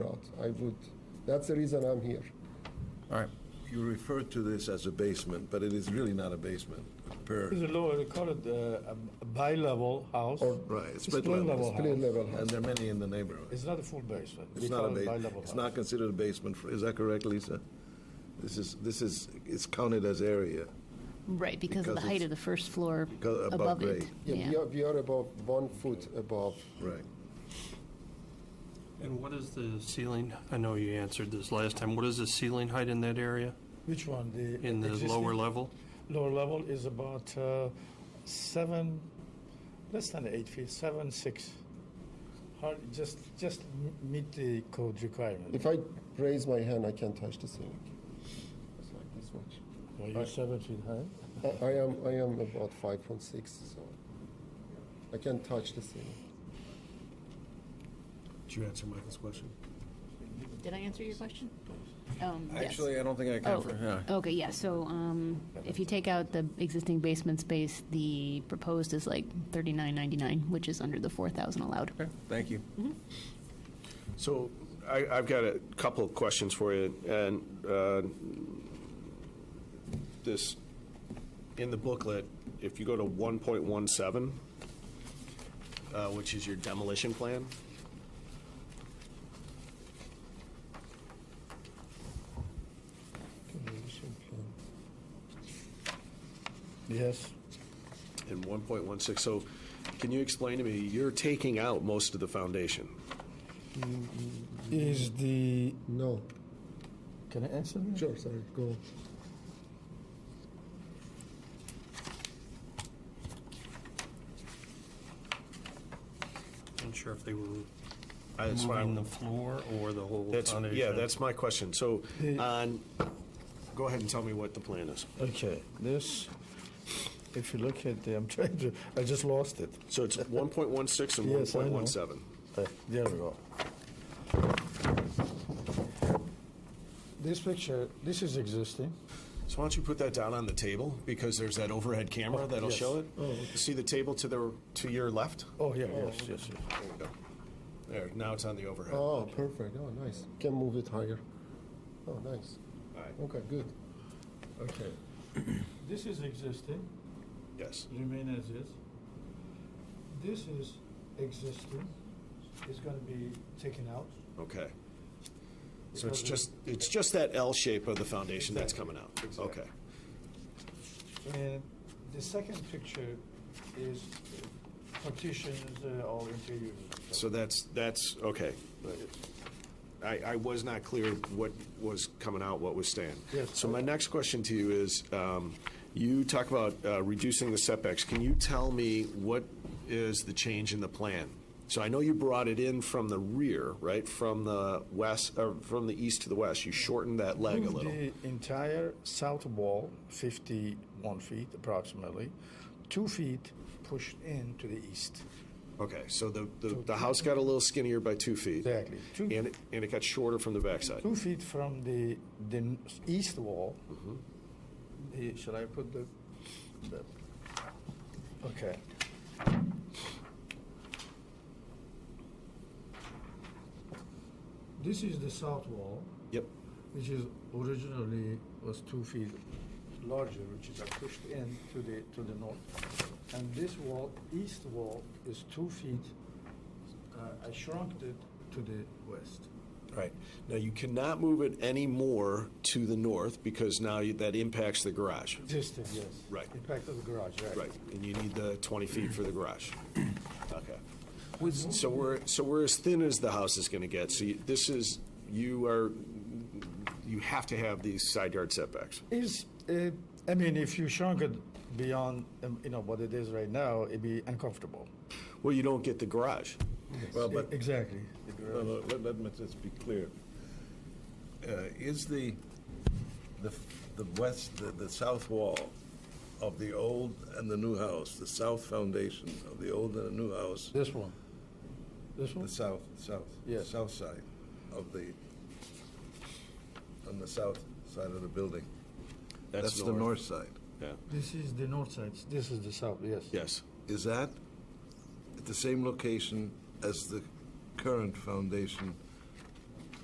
I would, that's the reason I'm here. All right, you refer to this as a basement, but it is really not a basement, per, It's a lower, they call it uh, a bi-level house. Or- Oh, right, it's It's split plain level. level. Clear level And house. there are many in the neighborhood. It's not a full basement. It's We not a call it basement, bi-level it's house. not considered a basement, for- is that correct, Lisa? This is, this is, it's counted as area, Right, because of the Because height it's- of the first floor because above above it. grade. Yeah, we are, we are above one foot above. right. And what is the ceiling? I know you answered this last time. What is the ceiling height in that area, Which one? The in the existing- lower level? Lower level is about uh, seven, less than eight feet, seven six. Hard, just just m- meet the code requirement. If I raise my hand, I can touch the ceiling. It's like this much. Well, you're seven feet high. I- I am, I am about five point six, so I can touch the ceiling. Did you answer Michael's question? Did I answer your question? Um, yes. Actually, I don't think I Oh, can, for- yeah. okay, yeah, so um, if you take out the existing basement space, the proposed is like thirty-nine ninety-nine, which is under the four thousand allowed. Okay, Thank you. So I, I've got a couple of questions for you, and uh, this, in the booklet, if you go to 1.17, uh, which is your demolition plan, Yes. and 1.16, so can you explain to me, you're taking out most of the foundation? Is the No, can I answer? that? sure, sorry, go on. I'm sure if they were I- that's what I- moving the floor or the whole That's, foundation. yeah, that's my question. So on, go ahead and tell me what the plan is. Okay. This. If you look at the, I'm trying to. I just lost it. So it's 1.16 and Yes, I know. 1.17. Uh, There we go. This picture, this is existing. So why don't you put that down on the table because there's that overhead camera that'll Oh, yes. show it. See the table to the to your left. Oh, yeah, yes, yes, yes. There you go. There. Now it's on the overhead. Oh, perfect, oh, nice, can move it higher. Oh, nice, All right. okay, good. Okay. This is existing, Yes. remain as is. This is existing, it's gonna be taken out. Okay. So it's Because just it's just that L shape of the foundation that's coming out. Okay. And the second picture is partitions uh, all interiors. So that's that's okay. I, I was not clear what was coming out, what was staying. Yes. So my next question to you is, um, you talk about uh, reducing the setbacks. Can you tell me what is the change in the plan? So I know you brought it in from the rear, right, from the west, or from the east to the west. You shortened that leg a Move little. The entire south wall, 51 feet approximately, two feet pushed in to the east. Okay, so the, the, the house got a little skinnier by two feet. Exactly. Two- And it, and it got shorter from the backside. Two feet from the, the n- east wall. Mm-hmm. The- Shall I put the, the- okay. This is the south wall, Yep. which is originally was two feet larger, which is pushed in to the, to the north. And this wall, east wall, is two feet, uh, I shrunk it to the west. Right. Now, you cannot move it any more to the north because now you- that impacts the garage. Existing, yes. Right. Impact of the garage, right. Right. And you need the 20 feet for the garage. Okay. So we're, so we're as thin as the house is going to get. So you- this is, you are, you have to have these side yard setbacks. Is, uh, I mean, if you shrunk it beyond, um, you know, what it is right now, it'd be uncomfortable. E, Well, you don't get the garage. Well, but Exactly. No, no, let, let me just be clear. Uh, Is the, the, the west, the, the south wall of the old and the new house, the south foundation of the old and the new house, This one. This the one? south, south, Yes. south side of the, on the south side of the building? That's the north side. Yeah. This is the north side, this is the south, yes. Yes. Is that at the same location as the current foundation